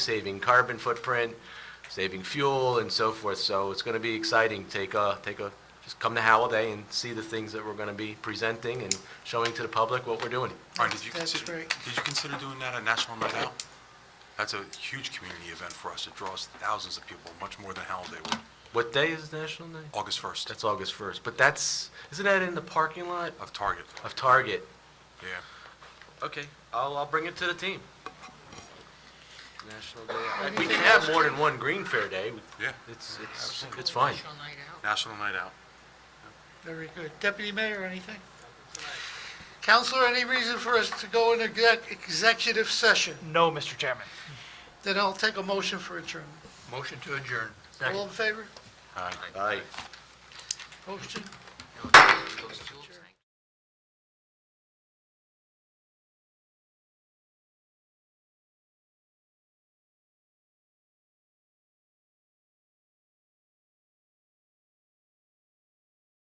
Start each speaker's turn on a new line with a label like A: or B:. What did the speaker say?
A: saving carbon footprint, saving fuel and so forth. So it's going to be exciting. Take a, take a, just come to Halliday and see the things that we're going to be presenting and showing to the public what we're doing.
B: All right, did you
C: That's
B: consider,
C: great.
B: did you consider doing that at National Night Out? That's a huge community event for us. It draws thousands of people, much more than Holiday would.
A: What day is National Night?
B: August 1st
A: That's August 1st, but that's, isn't that in the parking lot
B: of Target.
A: of Target?
B: Yeah.
A: Okay, I'll, I'll bring it to the team. National Day Out. We can have more than one Green Fair Day.
B: Yeah.
A: It's, it's, it's fine.
B: National Night Out.
C: Very good. Deputy Mayor, anything? Counselor, any reason for us to go into exec- executive session?
D: No, Mr. Chairman.
C: Then I'll take a motion for adjournment.
D: Motion to adjourn.
C: All in favor?
B: All right.
A: Aye.
C: Motion